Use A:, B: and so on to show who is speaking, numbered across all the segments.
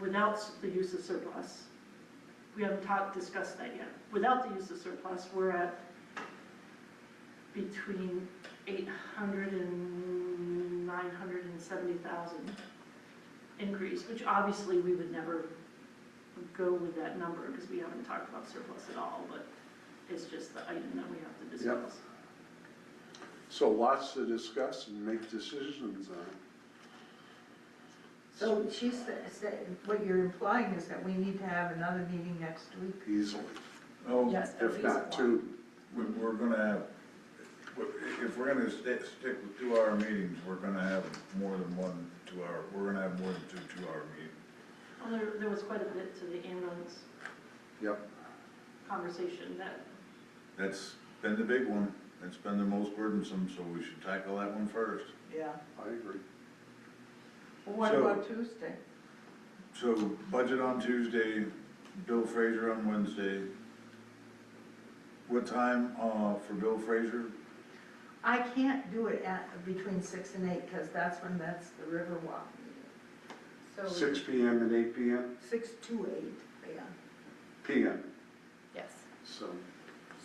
A: without the use of surplus. We haven't talked, discussed that yet. Without the use of surplus, we're at between 800 and 970,000 increase, which obviously we would never go with that number because we haven't talked about surplus at all, but it's just the item that we have to discuss.
B: So lots to discuss and make decisions on.
C: So she's saying, what you're implying is that we need to have another meeting next week?
B: easily,
D: Oh,
C: Yes.
B: if not two.
D: we- we're gonna have, if we're gonna stick, stick with two-hour meetings, we're gonna have more than one two-hour, we're gonna have more than two two-hour meetings.
A: Well, there, there was quite a bit to the ambulance
B: Yep.
A: conversation that,
D: That's been the big one, that's been the most burdensome, so we should tackle that one first.
C: Yeah.
B: I agree.
C: Well, what
D: So-
C: about Tuesday?
D: So budget on Tuesday, Bill Fraser on Wednesday. What time, uh, for Bill Fraser?
C: I can't do it at, between six and eight, because that's when that's the Riverwalk meeting.
E: Oh,
C: So.
B: Six P M. and eight P M?
C: Six to eight, yeah.
B: P M,
E: Yes,
B: so.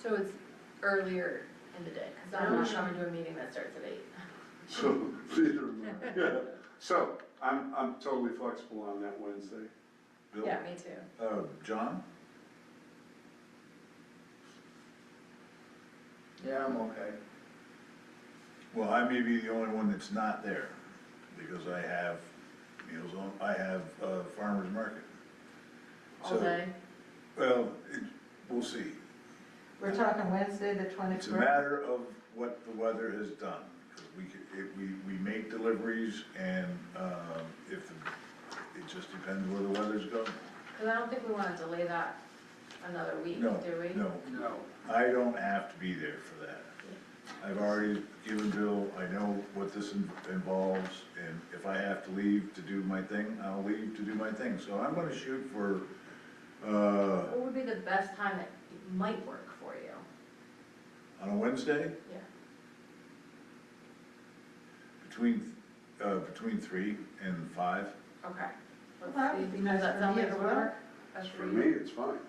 E: so it's earlier in the day, because I'm not coming to a meeting that starts at eight.
B: So, neither am I. Yeah. So, I'm, I'm totally flexible on that Wednesday.
D: Bill?
E: Yeah, me too.
D: Uh, John?
F: Yeah, I'm okay.
D: Well, I may be the only one that's not there, because I have meals on, I have, uh, farmer's market.
E: All
D: So,
E: day,
D: Well, it, we'll see.
C: We're talking Wednesday, the
D: It's a
C: twenty-first.
D: matter of what the weather has done. 'Cause We, c- if we, we make deliveries and, um, if, the- it just depends where the weather's going.
E: because I don't think we want to delay that another week, do
D: No,
E: we?
D: no,
F: No.
D: I don't have to be there for that. I've already given Bill, I know what this in- involves, and if I have to leave to do my thing, I'll leave to do my thing. So I'm gonna shoot for, uh,
E: What would be the best time that it might work for you?
D: on a Wednesday,
E: Yeah.
D: between, uh, between three and five.
E: Okay. Let's
C: That
E: see.
C: would be
E: Does
C: nice
E: that
C: for
E: sound
C: me
E: like
C: as
E: it
C: well.
E: work? That's
B: For me, it's fine.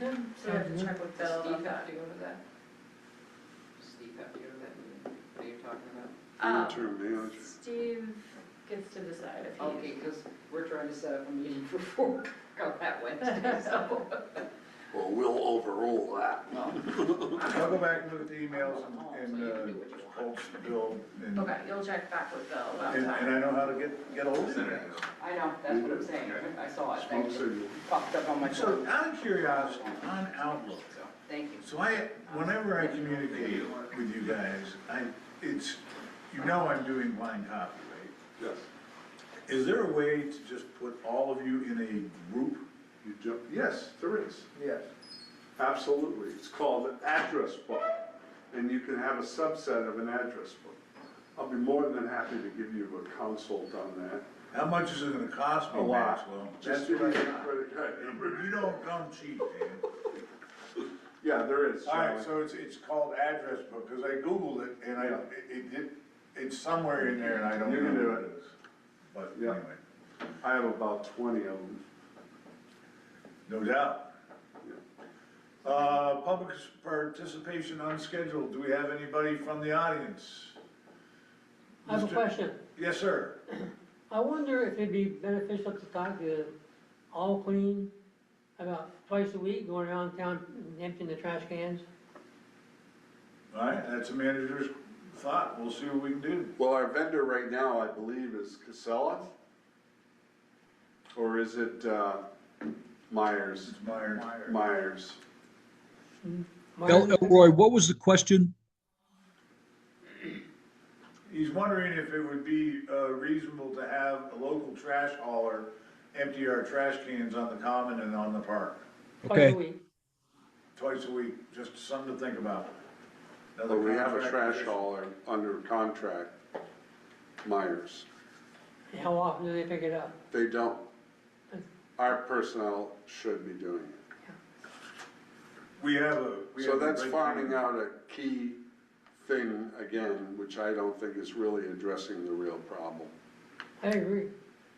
E: So I have to check with Bill
G: Does
E: about
G: Steve
E: that.
G: have to go to that? Does um, Steve have to go to that meeting? What are you talking about?
E: Um,
B: Interim manager.
E: Steve gets to decide if
G: Okay,
E: he,
G: because we're trying to set up a meeting for four o'clock that Wednesday, so.
B: Well, we'll overrule that.
D: I'll go back and look at the emails and, and, uh, hold Bill and,
E: okay, you'll check back with Bill about
D: and and
E: time.
D: I know how to get, get ahold of you guys.
G: I know, that's what I'm saying. I saw it.
B: Smoke
G: Thank you.
B: signal.
G: Popped up on my
D: So
G: phone.
D: out of curiosity, on Outlook,
G: So, Thank you.
D: so I, whenever I communicate with you guys, I, it's, you know I'm doing blind copy, right?
B: Yes.
D: Is there a way to just put all of you in a group?
B: You jump, yes, there is.
F: Yes.
B: Absolutely. It's called an address book, and you can have a subset of an address book. I'll be more than happy to give you a consult on that.
D: How much is it gonna cost
B: A
D: me,
B: lot.
D: Maxwell?
B: Just
D: That's
B: give me a
D: what I thought.
B: credit card number.
D: You don't come cheap, man.
B: Yeah, there is.
D: All right,
B: Charlie.
D: so it's, it's called address book, because I Googled it, and I,
B: Yeah.
D: it, it, it's somewhere in there, and I don't
B: You
D: know
B: can do
D: what
B: it.
D: it is. But
B: Yeah.
D: anyway,
B: I have about twenty of them.
D: no doubt. Uh, public participation unscheduled, do we have anybody from the audience?
H: I have a
D: Mr.
H: question.
D: Yes, sir.
H: I wonder if it'd be beneficial to talk to All Clean about twice a week, going around town and emptying the trash cans?
D: All right, that's a manager's thought, we'll see what we can do.
B: Well, our vendor right now, I believe, is Casella? Or is it, uh, Myers?
D: It's Myers.
B: Myers.
I: El- Elroy, what was the question?
D: He's wondering if it would be uh, reasonable to have a local trash hauler empty our trash cans on the common and on the park.
H: Twice
I: Okay.
H: a week.
D: twice a week, just something to think about. Another
B: But we have a
D: contract
B: trash
D: issue.
B: hauler under contract, Myers.
H: How often do they pick it up?
B: They don't. Our personnel should be doing it.
D: We have a. we
B: So
D: have a
B: that's
D: right-
B: farming out a key thing again, which I don't think is really addressing the real problem.
H: I agree.